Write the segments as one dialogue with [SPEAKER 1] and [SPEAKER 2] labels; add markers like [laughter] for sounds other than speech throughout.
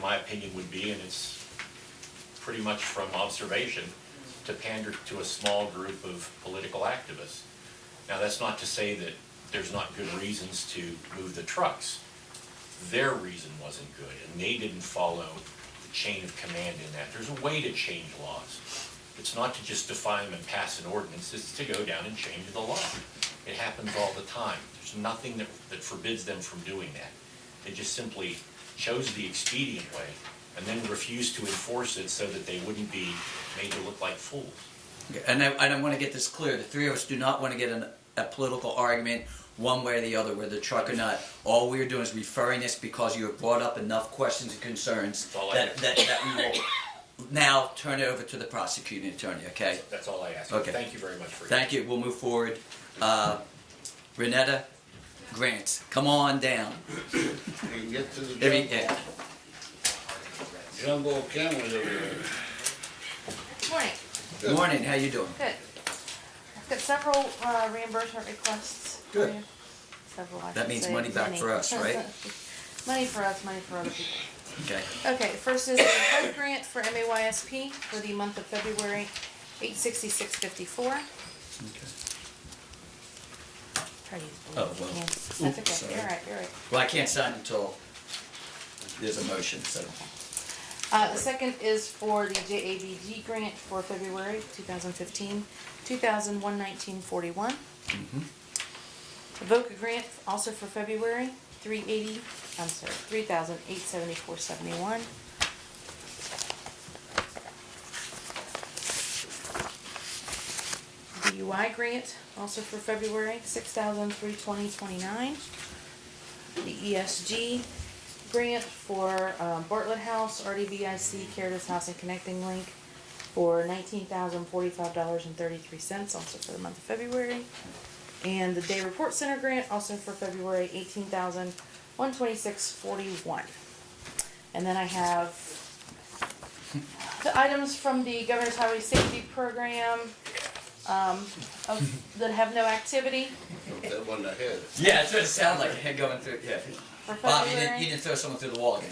[SPEAKER 1] my opinion, would be, and it's pretty much from observation, to pander to a small group of political activists. Now, that's not to say that there's not good reasons to move the trucks. Their reason wasn't good, and they didn't follow the chain of command in that. There's a way to change laws. It's not to just define them and pass an ordinance, it's to go down and change the law. It happens all the time. There's nothing that, that forbids them from doing that. They just simply chose the expedient way and then refused to enforce it so that they wouldn't be made to look like fools.
[SPEAKER 2] Okay, And I, and I want to get this clear. The three of us do not want to get in a political argument one way or the other, whether truck or not. All we are doing is referring this because you have brought up enough questions and concerns
[SPEAKER 1] That's all I
[SPEAKER 2] that,
[SPEAKER 1] do.
[SPEAKER 2] that, that
[SPEAKER 1] [laughs]
[SPEAKER 2] we will now turn it over to the prosecuting attorney, okay?
[SPEAKER 1] That's all I ask.
[SPEAKER 2] Okay.
[SPEAKER 1] Thank you very much for your.
[SPEAKER 2] Thank you. We'll move forward. Uh, Renetta Grant, come on down.
[SPEAKER 3] and get to the
[SPEAKER 2] There we-
[SPEAKER 3] jungle.
[SPEAKER 2] yeah.
[SPEAKER 3] Jungle cameras over there.
[SPEAKER 4] Morning,
[SPEAKER 3] Good.
[SPEAKER 2] Morning, how you doing?
[SPEAKER 4] good. I've got several uh, reimbursement requests for
[SPEAKER 2] Good.
[SPEAKER 4] you. Several, I should say.
[SPEAKER 2] That means money back
[SPEAKER 4] Many.
[SPEAKER 2] for us, right?
[SPEAKER 4] Money for us, money for other people.
[SPEAKER 2] Okay.
[SPEAKER 4] Okay, first is the HUD grant for MAYSP for the month of February, eight sixty-six fifty-four. Try to use blue.
[SPEAKER 2] Oh, well.
[SPEAKER 4] Yeah,
[SPEAKER 2] Oops,
[SPEAKER 4] That's okay,
[SPEAKER 2] sorry.
[SPEAKER 4] you're right, you're right.
[SPEAKER 2] Well, I can't sign until there's a motion, so.
[SPEAKER 4] Uh, the second is for the JABG grant for February 2015, 2119.41. The VOCA grant also for February, 380, I'm sorry, 3,874.71. DUI grant also for February, 6,320.29. The E ESG grant for um, Bartlett House, RDVIC, Caritas House and Connecting Link for nineteen thousand forty-five dollars and thirty-three cents, also for the month of February. And the Day Report Center grant, also for February, eighteen thousand one twenty-six forty-one. And then I have the items from the Governor's Highway Safety Program, um, of, that have no activity
[SPEAKER 3] That one ahead.
[SPEAKER 2] Yeah, that's what it sounded like, [laughs] head going through, yeah.
[SPEAKER 4] for
[SPEAKER 2] Bob,
[SPEAKER 4] February.
[SPEAKER 2] you didn't, you didn't throw someone through the wall [laughs] again.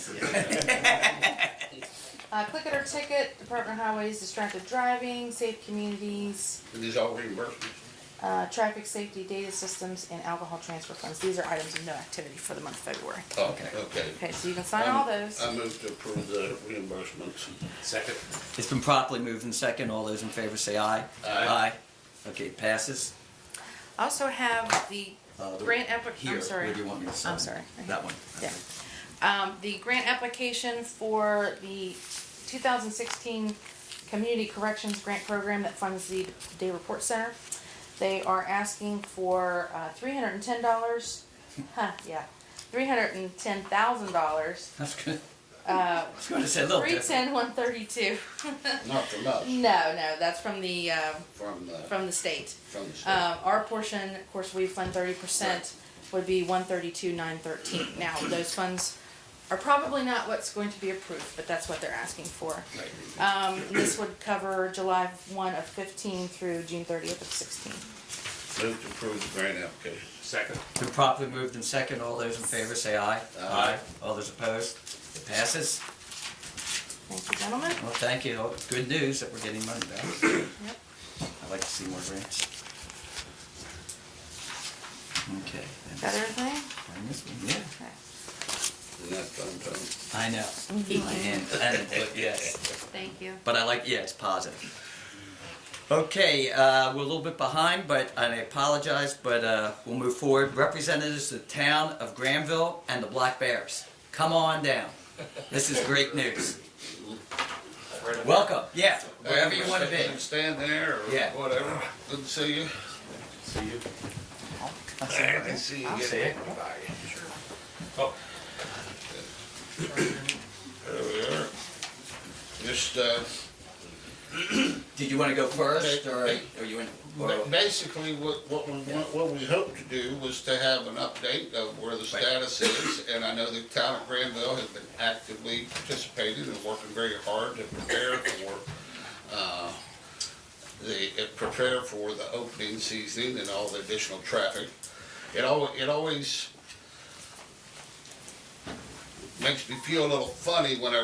[SPEAKER 4] Uh, click it or ticket, Department of Highways, distracted driving, safe communities,
[SPEAKER 3] And these all reimbursements.
[SPEAKER 4] uh, traffic safety data systems, and alcohol transfer funds. These are items of no activity for the month of February.
[SPEAKER 3] Oh,
[SPEAKER 2] Okay.
[SPEAKER 3] Okay.
[SPEAKER 4] Okay, so you can
[SPEAKER 2] Um,
[SPEAKER 4] sign all
[SPEAKER 3] I'm-
[SPEAKER 2] uh,
[SPEAKER 4] those.
[SPEAKER 3] I move to approve the reimbursements.
[SPEAKER 1] Second.
[SPEAKER 2] It's been properly moved and second. All those in favor say aye.
[SPEAKER 3] Aye.
[SPEAKER 2] Okay, it passes.
[SPEAKER 4] I Also have the
[SPEAKER 2] Uh, the-
[SPEAKER 4] grant applic,
[SPEAKER 2] Here,
[SPEAKER 4] I'm sorry.
[SPEAKER 2] where do you want me to sign?
[SPEAKER 4] I'm sorry.
[SPEAKER 2] That one.
[SPEAKER 4] Yeah. Um, the grant application for the two thousand sixteen Community Corrections Grant Program that funds the Day Report Center. They are asking for, uh, three hundred and ten dollars, huh, yeah, three hundred and ten thousand dollars.
[SPEAKER 2] That's good. [laughs]
[SPEAKER 4] Uh,
[SPEAKER 2] I was going to say a little
[SPEAKER 4] three
[SPEAKER 2] different.
[SPEAKER 4] ten, one thirty-two.
[SPEAKER 3] Not from us,
[SPEAKER 4] No, no, that's from the, um,
[SPEAKER 3] from the,
[SPEAKER 4] from the state.
[SPEAKER 3] from the state.
[SPEAKER 4] Um, our portion, of course, we fund thirty percent, would be one thirty-two, nine thirteen. Now, those funds are probably not what's going to be approved, but that's what they're asking for. Um, this would cover July one of fifteen through June thirtieth of sixteen.
[SPEAKER 3] Move to approve the grant application.
[SPEAKER 1] Second.
[SPEAKER 2] Been properly moved and second. All those in favor say aye.
[SPEAKER 3] Aye.
[SPEAKER 2] All those opposed? It passes.
[SPEAKER 4] Thank you, gentlemen.
[SPEAKER 2] Well, thank you. Good news that we're getting money back.
[SPEAKER 4] Yep.
[SPEAKER 2] I'd like to see more grants. Okay. and
[SPEAKER 4] Got everything?
[SPEAKER 2] bring this one, Yeah.
[SPEAKER 4] Okay.
[SPEAKER 3] And that's done, done.
[SPEAKER 2] I know. And, and, it- yes.
[SPEAKER 4] Thank you.
[SPEAKER 2] But I uh, like, yeah, it's positive. Okay, uh, we're a little bit behind, but and I apologize, but uh, we'll move forward. Representatives of the town of Granville and the Black Bears, come on down. This is great news. Welcome, yeah, wherever you want to be.
[SPEAKER 3] Stand there
[SPEAKER 2] Yeah.
[SPEAKER 3] or whatever. Good to see you.
[SPEAKER 1] See you.
[SPEAKER 3] I can see you
[SPEAKER 4] I'll
[SPEAKER 3] getting
[SPEAKER 4] see it.
[SPEAKER 3] everybody.
[SPEAKER 1] Oh.
[SPEAKER 3] There we are. Just, uh,
[SPEAKER 2] Did you want to go first, or or you want?
[SPEAKER 3] Ba-
[SPEAKER 2] or-
[SPEAKER 3] Basically, what, what we, want- what we hoped to do was to have an update of where the status is, and I know the town of Granville has been actively participating and working very hard to prepare for, uh, the, uh, prepare for the opening season and all the additional traffic. It al, it always makes me feel a little funny when I